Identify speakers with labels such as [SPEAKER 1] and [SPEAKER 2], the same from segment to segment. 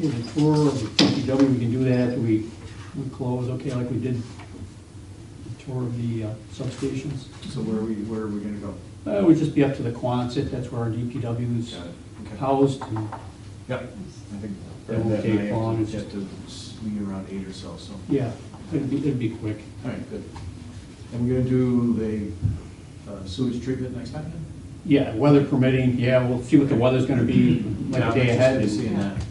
[SPEAKER 1] is a tour of the DPW, we can do that after we, we close, okay, like we did the tour of the uh, substations.
[SPEAKER 2] So where are we, where are we gonna go?
[SPEAKER 1] Uh, It would just be up to the Quonset, that's where our DPW is
[SPEAKER 2] Got it. Okay.
[SPEAKER 1] housed, and
[SPEAKER 2] Yeah, I think
[SPEAKER 1] It
[SPEAKER 2] that
[SPEAKER 1] won't
[SPEAKER 2] and I
[SPEAKER 1] take long,
[SPEAKER 2] have
[SPEAKER 1] it's
[SPEAKER 2] to, have to swing around eight or so, so.
[SPEAKER 1] Yeah, it'd be, it'd be quick.
[SPEAKER 2] All right, good. And we're gonna do the uh, sewage treatment next time then?
[SPEAKER 1] Yeah, weather permitting, yeah, we'll see what the weather's gonna be like a
[SPEAKER 2] Yeah, I'm
[SPEAKER 1] day ahead.
[SPEAKER 2] interested in
[SPEAKER 1] and-
[SPEAKER 2] Seeing that, yeah.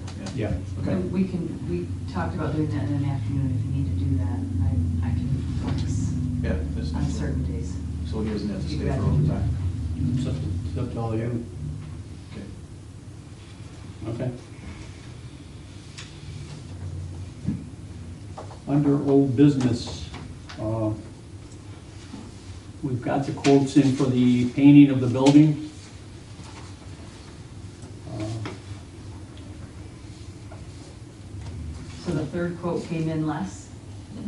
[SPEAKER 1] Yeah,
[SPEAKER 2] Okay,
[SPEAKER 3] And We can, we talked about doing that in an afternoon if we need to do that. I, I can flex
[SPEAKER 2] yeah. that's-
[SPEAKER 3] on certain days.
[SPEAKER 2] So he doesn't have to
[SPEAKER 3] You
[SPEAKER 2] stay for
[SPEAKER 3] bet.
[SPEAKER 2] overtime.
[SPEAKER 1] it's up to, it's up to all of you,
[SPEAKER 2] Okay.
[SPEAKER 1] okay? Under old business, uh, we've got the quotes in for the painting of the building. Uh,
[SPEAKER 3] So the third quote came in less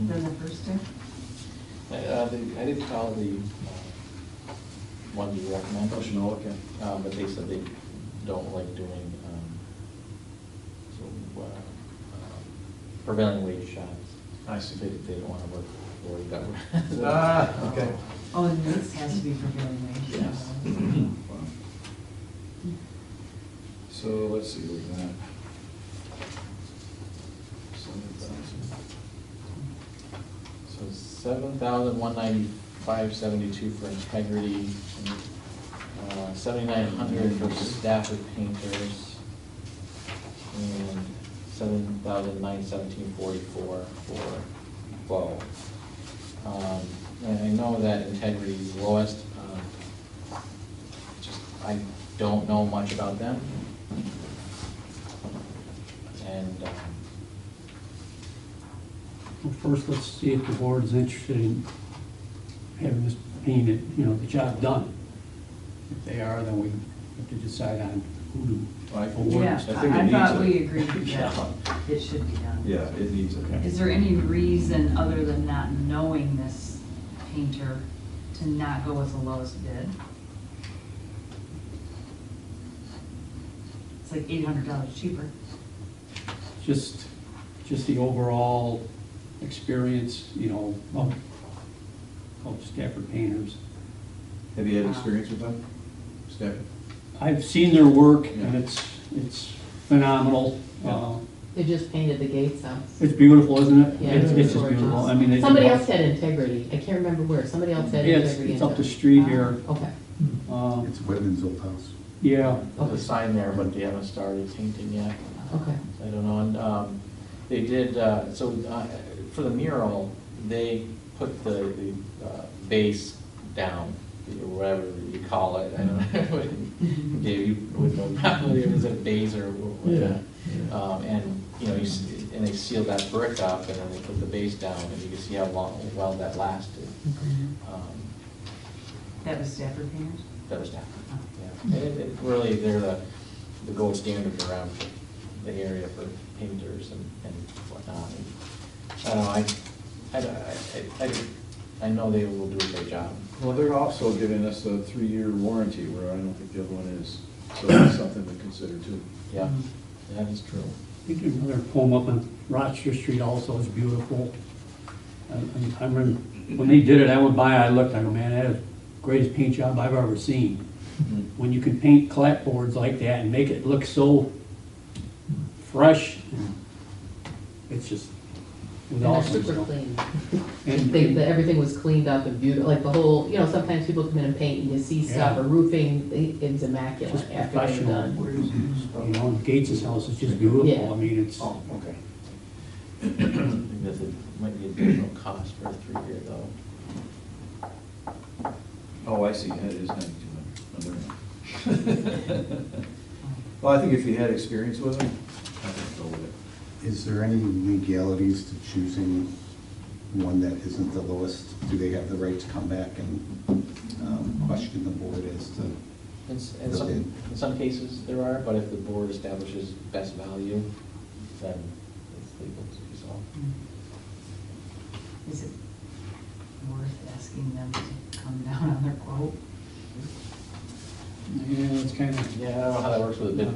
[SPEAKER 3] than the first two?
[SPEAKER 4] Uh, they- I did call the uh, one you recommend,
[SPEAKER 2] Professional, okay.
[SPEAKER 4] um, but they said they don't like doing um, so, uh, um, prevailing wage jobs.
[SPEAKER 2] I
[SPEAKER 4] So
[SPEAKER 2] see.
[SPEAKER 4] They they don't want to work for that.
[SPEAKER 2] Ah, okay.
[SPEAKER 3] Oh, and this has to be prevailing wage.
[SPEAKER 4] Yes.
[SPEAKER 2] Wow. So let's see, we got. Seven thousand.
[SPEAKER 4] So seven thousand one ninety-five seventy-two for integrity, uh, seventy-nine hundred for staff of painters, and seven thousand nine seventeen forty-four for Bo. Um, And I know that integrity is lowest, um, just, I don't know much about them. And, um,
[SPEAKER 1] Well, First, let's see if the board is interested in having this painted, you know, the job done. If they are, then we have to decide on who
[SPEAKER 2] I-
[SPEAKER 1] to award.
[SPEAKER 3] Yeah,
[SPEAKER 1] this.
[SPEAKER 2] I think it
[SPEAKER 3] I I thought
[SPEAKER 2] needs it.
[SPEAKER 3] we agreed with that. It should be done.
[SPEAKER 2] Yeah, it needs, okay.
[SPEAKER 3] Is there any reason other than not knowing this painter to not go with the lowest bid? It's like eight hundred dollars cheaper.
[SPEAKER 1] Just, just the overall experience, you know, of, of Stafford painters.
[SPEAKER 2] Have you had experience with that, Stefan?
[SPEAKER 1] I've seen their work and
[SPEAKER 2] Yeah.
[SPEAKER 1] it's, it's phenomenal.
[SPEAKER 2] Yeah.
[SPEAKER 1] Uh,
[SPEAKER 5] They just painted the gates up.
[SPEAKER 1] It's beautiful, isn't it?
[SPEAKER 5] Yeah,
[SPEAKER 1] It's it's
[SPEAKER 5] it's
[SPEAKER 1] just
[SPEAKER 5] gorgeous.
[SPEAKER 1] beautiful. I mean, they did
[SPEAKER 5] Somebody
[SPEAKER 1] well.
[SPEAKER 5] else had integrity, I can't remember where, somebody else had
[SPEAKER 1] Yeah, it's-
[SPEAKER 5] integrity.
[SPEAKER 1] it's
[SPEAKER 5] and
[SPEAKER 1] up the
[SPEAKER 5] done-
[SPEAKER 1] street here.
[SPEAKER 5] Ah, Okay,
[SPEAKER 1] Uh,
[SPEAKER 6] It's Whitman's old house.
[SPEAKER 1] Yeah,
[SPEAKER 4] There's a sign there, but they haven't started painting yet.
[SPEAKER 5] okay.
[SPEAKER 4] I don't know, and, um, they did, uh, so, uh, for the mural, they put the, the, uh, base down, or whatever you call it, I don't know. Dave, you would know probably, it was a base or whatever. Um, and, you know, you, s- and they sealed that brick up, and then they put the base down, and you can see how long, well that lasted.
[SPEAKER 5] Mm-hmm.
[SPEAKER 4] Um,
[SPEAKER 3] That was Stafford Oh. painters?
[SPEAKER 4] That was down. Yeah, it, it really, they're the, the gold standard around the area for painters and, and whatnot. And I don't know, I, I, I- I, I know they will do a great job.
[SPEAKER 2] Well, they're also giving us a three-year warranty, where I don't think the other one is, so that's something to consider too.
[SPEAKER 4] Yeah, that is true.
[SPEAKER 1] We did another poem up on Rochester Street also, it's beautiful. And- and I remember, when they did it, I went by, I looked, I go, man, that is the greatest paint job I've ever seen.
[SPEAKER 4] Mm-hmm.
[SPEAKER 1] When you can paint clapboards like that and make it look so fresh, and it's just, it was
[SPEAKER 5] And they're
[SPEAKER 1] awesome.
[SPEAKER 5] super
[SPEAKER 1] so.
[SPEAKER 5] clean.
[SPEAKER 1] And-
[SPEAKER 5] They, the- everything was cleaned up and beautiful, like the whole, you know, sometimes people come in and paint and you see stuff,
[SPEAKER 1] Yeah.
[SPEAKER 5] or roofing, it- it's immaculate
[SPEAKER 1] Just
[SPEAKER 5] after they're
[SPEAKER 1] professional.
[SPEAKER 5] done.
[SPEAKER 1] You know, and Gates' house is just beautiful, I
[SPEAKER 5] Yeah.
[SPEAKER 1] mean, it's,
[SPEAKER 2] Oh, okay.
[SPEAKER 4] I think that's a, might be additional cost for a three-year though.
[SPEAKER 2] Oh, I see, that is ninety-two hundred. Well, I think if you had experience with it, I think go with it.
[SPEAKER 6] Is there any legalities to choosing one that isn't the lowest? Do they have the right to come back and um, question the board as to,
[SPEAKER 4] In, s- in some,
[SPEAKER 6] Okay.
[SPEAKER 4] in some cases there are, but if the board establishes best value, then it's legal to do so.
[SPEAKER 3] Hmm. Is it worth asking them to come down on their quote?
[SPEAKER 1] yeah, it's kind of.
[SPEAKER 4] Yeah, I don't know how that works with a bid